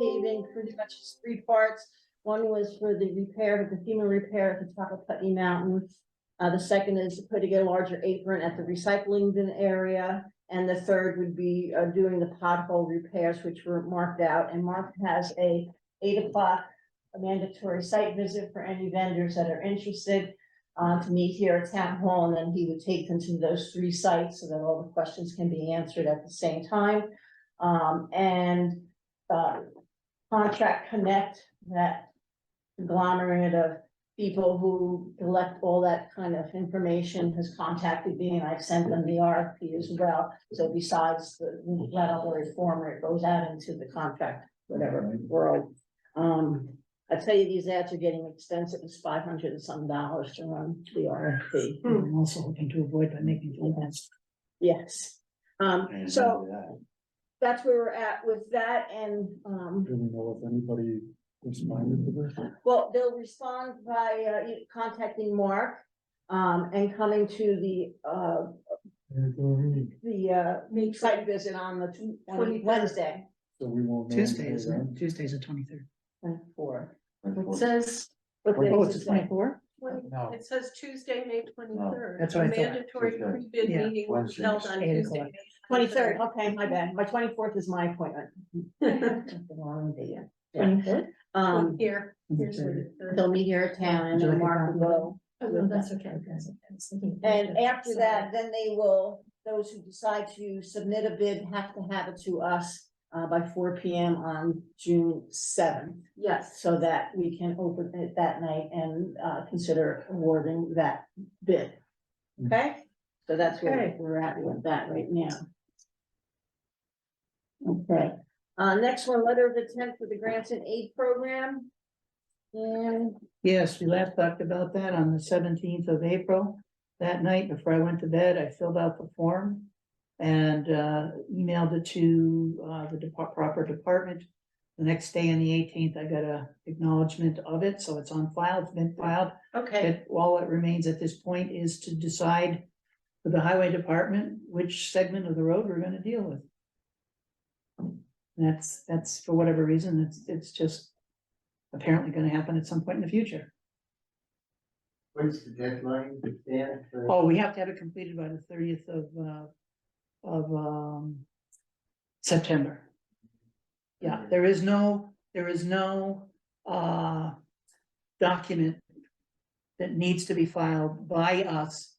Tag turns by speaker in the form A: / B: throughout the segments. A: paving, pretty much it's three parts. One was for the repair, the FEMA repair at the top of Putney Mountain. Uh, the second is putting a larger apron at the recycling bin area. And the third would be, uh, doing the pothole repairs, which were marked out, and Mark has a eight o'clock a mandatory site visit for any vendors that are interested, uh, to meet here at Town Hall, and then he would take them to those three sites so that all the questions can be answered at the same time. Um, and, uh, Contract Connect, that conglomerate of people who collect all that kind of information has contacted me and I've sent them the RFP as well. So besides the regulatory form, it goes out into the contract, whatever world. Um, I tell you, these ads are getting expensive. It's five hundred and some dollars to run the RFP.
B: I'm also looking to avoid by making events.
A: Yes. Um,
C: And uh,
A: so
C: do that.
A: that's where we're at with that and, um,
C: Do we know if anybody responded to this?
A: Well, they'll respond by uh, you- contacting Mark um, and coming to the, uh,
C: And do we-
A: the uh, site visit on the tw- on Wednesday.
C: So we won't. know
B: Tuesday,
C: until
B: isn't
C: then?
B: it? Tuesday's the twenty-third.
A: Four.
D: It says,
B: Oh, twenty-four?
D: twen-
C: No.
D: it says Tuesday, May twenty-third.
B: Oh, That's what I thought.
D: Mandatory
C: Tuesday.
D: pre-bid
B: Yeah.
D: meeting will be
C: Wednesday.
D: held on
B: Eight
D: Tuesday.
B: o'clock.
D: May
A: Twenty-third, okay, my bad. My twenty-fourth is my appointment.
B: Twenty-third?
A: Um,
D: Here, here's
B: Okay.
D: the- the-
A: they'll meet here at town and then Mark will go.
D: oh, no, that's okay.
A: And after that, then they will, those who decide to submit a bid have to have it to us uh, by four P M on June seventh.
D: Yes,
A: so that we can open it that night and uh consider awarding that bid. Okay, so that's where
D: Okay.
A: we're at with that right now. Okay, uh, next one, letter of intent for the grants and aid program. And
B: Yes, we last talked about that on the seventeenth of April. That night before I went to bed, I filled out the form and uh, emailed it to uh, the depart- proper department. The next day on the eighteenth, I got a acknowledgement of it, so it's on file, it's been filed.
D: okay,
B: that all that remains at this point is to decide for the highway department, which segment of the road we're gonna deal with. And That's, that's for whatever reason, it's, it's just apparently gonna happen at some point in the future.
E: When's the deadline, Dan? for-
B: Oh, we have to have it completed by the thirtieth of, uh, of, um, September. Yeah, there is no, there is no, uh, document that needs to be filed by us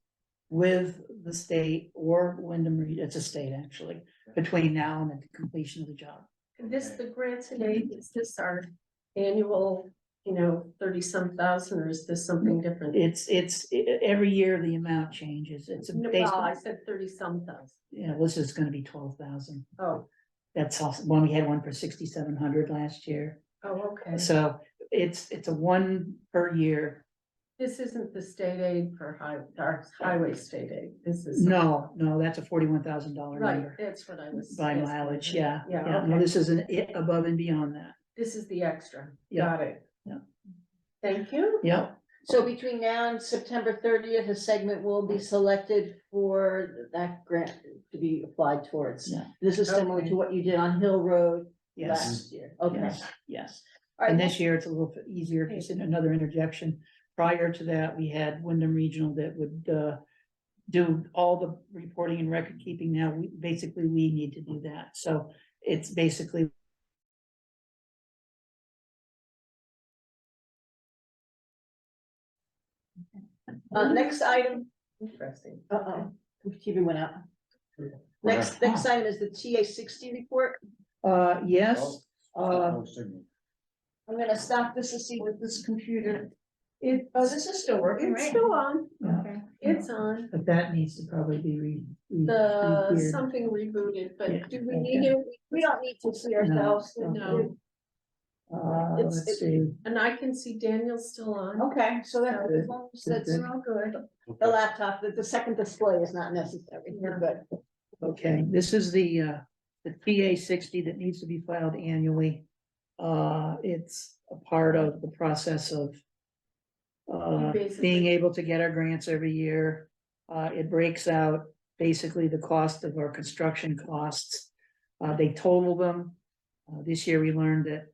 B: with the state or Wyndham Reed, it's a state actually, between now and the completion of the job.
D: this, the grants and aid, is this our annual, you know, thirty-some thousand, or is this something different?
B: It's, it's, e- e- every year the amount changes, it's
D: No, Well, I
B: basically,
D: said thirty-some thousand,
B: you know, this is gonna be twelve thousand.
D: oh,
B: That's also, one, we had one for sixty-seven hundred last year,
D: oh, okay,
B: so it's, it's a one per year.
D: this isn't the state aid for high, our highway state aid, this is.
B: No, no, that's a forty-one thousand dollar
D: Right,
B: number
D: that's what I was.
B: by
D: asking.
B: mileage, yeah.
D: Yeah,
B: No,
D: okay.
B: this isn't it above and beyond that,
D: This is the extra.
B: Yeah.
D: Got it.
B: Yeah.
D: Thank you.
B: yep.
A: so between now and September thirtieth, a segment will be selected for that grant to be applied towards.
B: Yeah.
A: This is similar
D: Okay.
A: to what you did on Hill Road
B: Yes, Mm-hmm.
A: last year, okay.
B: yes, yes.
A: All
B: And
A: right,
B: this year it's a little bit easier, just in another interjection. Prior to that, we had Wyndham Regional that would, uh, do all the reporting and record keeping now. We, basically, we need to do that. So it's basically
A: uh, next item
D: Interesting.
A: Uh-oh, TV went out. Next, next item is the TA sixty report.
B: Uh, yes,
C: Well,
B: uh,
C: no Oh, signal.
A: I'm gonna stop this to see what this computer.
D: It,
A: Oh, this is still working,
D: it's still on.
B: Yeah.
D: It's on.
B: uh, but that needs to probably be re. re-
D: The,
B: re-geared.
D: something rebooted,
B: Yeah.
D: but do we need it?
A: We don't need to see ourselves.
B: ourselves.
D: No.
B: Uh,
A: it's-
B: let's see,
D: And I can see Daniel's still on.
A: Okay, so that,
B: Okay.
A: that's
B: Okay.
A: all good. The laptop, the, the second display is not necessary, we're good.
B: okay, this is the, uh, the TA sixty that needs to be filed annually. Uh, it's a part of the process of uh, being
D: Basically.
B: able to get our grants every year. Uh, it breaks out basically the cost of our construction costs. Uh, they total them. Uh, this year we learned that